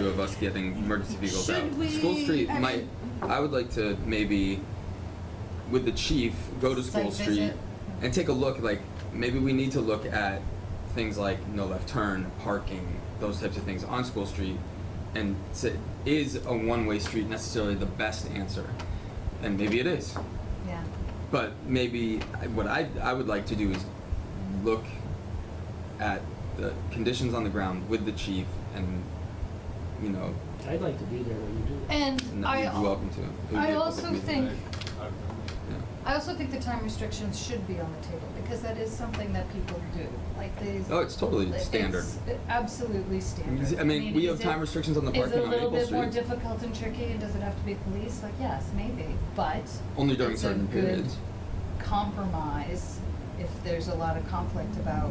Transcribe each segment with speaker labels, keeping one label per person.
Speaker 1: of us getting emergency vehicles
Speaker 2: Should
Speaker 1: out.
Speaker 2: we-
Speaker 1: School Street
Speaker 2: I
Speaker 1: might.
Speaker 2: mean-
Speaker 1: I would like to maybe, with the chief, go to School
Speaker 2: Site
Speaker 1: Street
Speaker 2: visit.
Speaker 1: and take a look. Like maybe we need to look at things like no left turn, parking, those types of things on School Street, and say, is a one-way street necessarily the best answer? And maybe it is.
Speaker 2: Yeah.
Speaker 1: But maybe I- what I, I would like to do is look at the conditions on the ground with the chief and, you know,
Speaker 3: I'd like to be there when you do it.
Speaker 2: And
Speaker 1: and you'd
Speaker 2: I,
Speaker 1: be
Speaker 2: al-
Speaker 1: welcome to. It would be a
Speaker 2: I
Speaker 1: public
Speaker 2: also
Speaker 1: meeting.
Speaker 2: think,
Speaker 4: I-
Speaker 1: Yeah.
Speaker 2: I also think the time restrictions should be on the table, because that is something that people do, like these.
Speaker 1: Oh, it's totally
Speaker 2: it's
Speaker 1: standard.
Speaker 2: Absolutely standard.
Speaker 1: I mean, we have
Speaker 2: is
Speaker 1: time
Speaker 2: it-
Speaker 1: restrictions on the
Speaker 2: Is it
Speaker 1: parking
Speaker 2: a
Speaker 1: on
Speaker 2: little
Speaker 1: Maple
Speaker 2: bit more
Speaker 1: Street,
Speaker 2: difficult and tricky, and does it have to be police? Like, yes, maybe, but.
Speaker 1: only during
Speaker 2: it's a
Speaker 1: certain
Speaker 2: good
Speaker 1: periods.
Speaker 2: Compromise if there's a lot of conflict about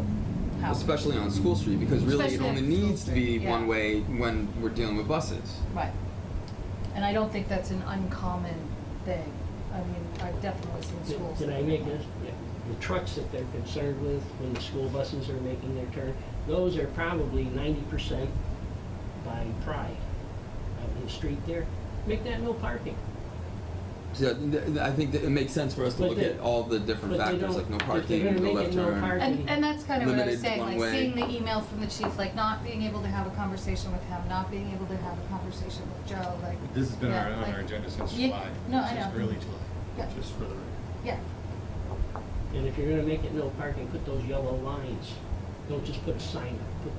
Speaker 2: how.
Speaker 1: Especially on School Street, because really it
Speaker 2: Especially on
Speaker 1: only
Speaker 2: School
Speaker 1: needs to be
Speaker 2: Street, yeah.
Speaker 1: one way when we're dealing with buses.
Speaker 2: Right. And I don't think that's an uncommon thing. I mean, I've definitely seen
Speaker 3: Did-
Speaker 2: schools.
Speaker 3: Did
Speaker 2: that
Speaker 3: I
Speaker 2: do
Speaker 3: make
Speaker 2: that.
Speaker 3: this? Yeah. The trucks that they're concerned with when the school buses are making their turn, those are probably ninety percent by pride of the street there. Make that no parking.
Speaker 1: So th- th- I think that it makes sense for us to
Speaker 3: But
Speaker 1: look
Speaker 3: they-
Speaker 1: at all the different
Speaker 3: but they
Speaker 1: factors,
Speaker 3: don't-
Speaker 1: like no
Speaker 3: if they're
Speaker 1: parking,
Speaker 3: gonna
Speaker 1: no
Speaker 3: make
Speaker 1: left
Speaker 3: it no
Speaker 1: turn.
Speaker 3: park-
Speaker 2: And, and that's kind of what I was
Speaker 1: Limited
Speaker 2: saying,
Speaker 1: one
Speaker 2: like
Speaker 1: way.
Speaker 2: seeing the email from the chief, like not being able to have a conversation with him, not being able to have a conversation with Joe, like.
Speaker 4: This has been
Speaker 2: yeah,
Speaker 4: our- on
Speaker 2: like-
Speaker 4: our agenda since
Speaker 2: Yeah,
Speaker 4: July.
Speaker 2: no, I
Speaker 4: since
Speaker 2: know.
Speaker 4: Early
Speaker 2: Yeah.
Speaker 4: July, just for the record.
Speaker 2: Yeah,
Speaker 3: And if you're gonna make it no parking, put those yellow lines. Don't just put a sign up, put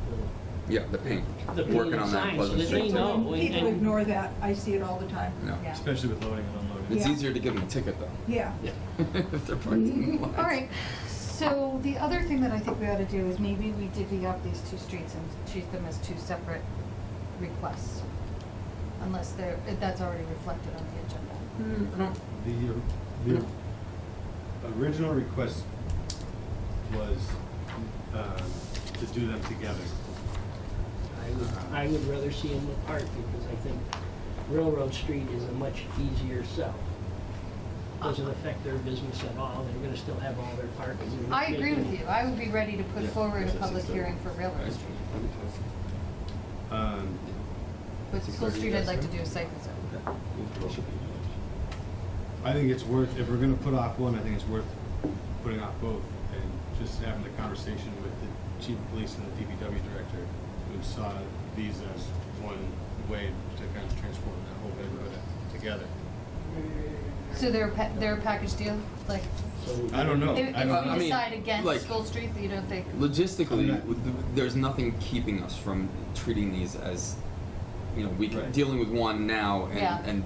Speaker 1: Yeah, the paint.
Speaker 3: the, the
Speaker 1: Working on that
Speaker 3: signs so
Speaker 1: Pleasant
Speaker 3: that they
Speaker 1: Street.
Speaker 3: know.
Speaker 5: People
Speaker 3: and-
Speaker 5: people
Speaker 3: and-
Speaker 5: ignore that, I see it all the time.
Speaker 1: No.
Speaker 2: yeah.
Speaker 4: Especially with loading and unloading.
Speaker 1: It's
Speaker 5: Yeah.
Speaker 1: easier to give them a ticket though.
Speaker 5: Yeah.
Speaker 3: Yeah.
Speaker 1: if they're parked in the lines.
Speaker 2: Mm-hmm. All right, so the other thing that I think we ought to do is maybe we divvy up these two streets and treat them as two separate requests. Unless they're, that's already reflected on the agenda.
Speaker 1: Mm, I don't-
Speaker 4: The, the original request was um, to do them together.
Speaker 3: I would, I would rather see them apart because I think Railroad Street is a much easier sell. Doesn't affect their business at all, they're gonna still have all their parking.
Speaker 2: I agree with you, I would be ready to put
Speaker 4: Yeah.
Speaker 2: forward a
Speaker 4: Yes, yes,
Speaker 2: public
Speaker 4: yes, sir.
Speaker 2: hearing for Railroad Street.
Speaker 4: Um,
Speaker 2: But
Speaker 1: Six
Speaker 2: School
Speaker 1: thirty,
Speaker 2: Street, I'd
Speaker 1: yes,
Speaker 2: like to
Speaker 1: sir.
Speaker 2: do a site visit.
Speaker 4: I think it's worth, if we're gonna put off one, I think it's worth putting off both and just having the conversation with the chief of police and the DPW director who saw these as one way to kind of transform that whole neighborhood together.
Speaker 2: So they're a, pa- they're a package deal? Like,
Speaker 4: I don't know.
Speaker 2: if
Speaker 4: I
Speaker 2: if
Speaker 4: don't-
Speaker 1: I
Speaker 2: we
Speaker 1: mean,
Speaker 2: decide
Speaker 1: like-
Speaker 2: against School Street, you don't think,
Speaker 1: Logistically,
Speaker 4: I'm not-
Speaker 1: w- th- there's nothing keeping us from treating these as, you know, we can
Speaker 4: Right.
Speaker 1: dealing with one now and,
Speaker 2: Yeah.
Speaker 1: and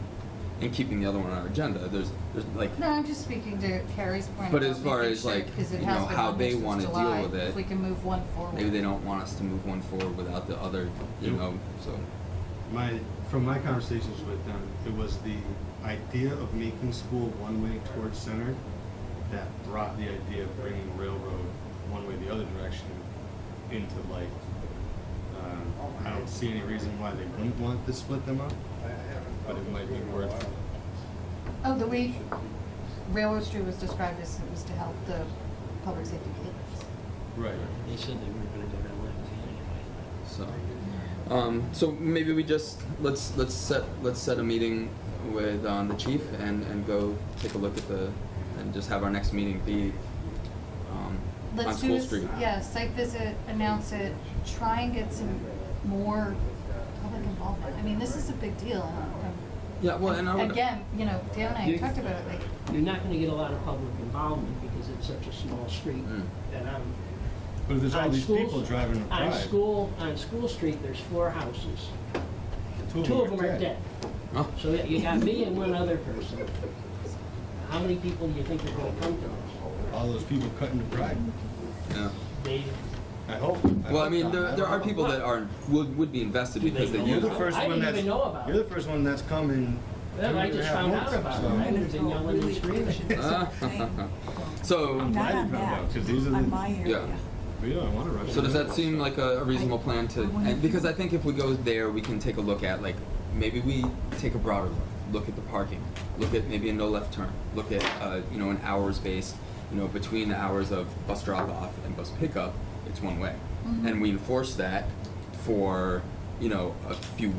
Speaker 1: and keeping the other one on our agenda. There's there's like
Speaker 2: no, I'm just speaking to Carrie's point.
Speaker 1: But
Speaker 2: about
Speaker 1: as far
Speaker 2: making
Speaker 1: as,
Speaker 2: sure,
Speaker 1: like,
Speaker 2: 'cause it
Speaker 1: you
Speaker 2: has
Speaker 1: know,
Speaker 2: been
Speaker 1: how
Speaker 2: on
Speaker 1: they
Speaker 2: since
Speaker 1: wanna deal
Speaker 2: July,
Speaker 1: with it,
Speaker 2: If we can move one forward.
Speaker 1: maybe they don't want us to move one forward without the other, you
Speaker 4: Yep.
Speaker 1: know. So
Speaker 4: My, from my conversations with them, it was the idea of making school one-way towards center that brought the idea of bringing railroad one way the other direction into light. Um, I don't see any reason why they wouldn't want to split them up, but it might be worth,
Speaker 2: Oh, the way Railroad Street was described as, it was to help the public safety vehicles.
Speaker 4: right.
Speaker 3: They said they were gonna go down left anyway.
Speaker 1: So, um, so maybe we just, let's, let's set, let's set a meeting with, um, the chief and, and go take a look at the, and just have our next meeting be, um, on
Speaker 2: Let's do,
Speaker 1: School
Speaker 2: a s-
Speaker 1: Street.
Speaker 2: yeah, site visit, announce it, try and get some more public involvement. I mean, this is a big deal. and I'm-
Speaker 1: Yeah, well, and I would.
Speaker 2: Again, you know, Dan and I
Speaker 3: You-
Speaker 2: talked about it, like,
Speaker 3: You're not gonna get a lot of public involvement because it's such a small street
Speaker 1: Mm.
Speaker 3: that I'm.
Speaker 4: But if there's all
Speaker 3: on
Speaker 4: these
Speaker 3: schools-
Speaker 4: people driving a
Speaker 3: On
Speaker 4: drive,
Speaker 3: school, on School Street, there's four houses, two of them are dead.
Speaker 1: Oh,
Speaker 3: So yeah, you got me and one other person. How many people do you think are gonna come to us?
Speaker 4: All those people cutting the drive,
Speaker 1: yeah.
Speaker 3: They,
Speaker 4: I hope.
Speaker 1: Well, I mean, there, there are people that are, would, would be invested
Speaker 3: Do they
Speaker 1: because they
Speaker 3: know
Speaker 1: use
Speaker 3: about
Speaker 1: it.
Speaker 3: it? I didn't even know about
Speaker 4: You're
Speaker 3: it.
Speaker 4: the first one that's coming.
Speaker 3: Well, I just found out about it. I
Speaker 5: And
Speaker 3: would've
Speaker 5: it's
Speaker 3: been
Speaker 5: all
Speaker 3: yelling and
Speaker 5: really
Speaker 3: screaming.
Speaker 5: pushing
Speaker 1: Ah.
Speaker 5: something.
Speaker 1: So,
Speaker 5: Not
Speaker 4: glad you
Speaker 5: on
Speaker 4: found out, 'cause these are
Speaker 5: that,
Speaker 4: the-
Speaker 5: on my area.
Speaker 1: Yeah.
Speaker 4: We don't want to rush.
Speaker 1: so does
Speaker 4: them.
Speaker 1: that seem like a a reasonable plan to,
Speaker 5: I wanna-
Speaker 1: and because I think if we go there, we can take a look at, like, maybe we take a broader look, look at the parking, look at maybe a no left turn, look at, uh, you know, an hours based, you know, between the hours of bus drop off and bus pickup, it's one way.
Speaker 2: Mhm.
Speaker 1: And we enforce that for, you know, a few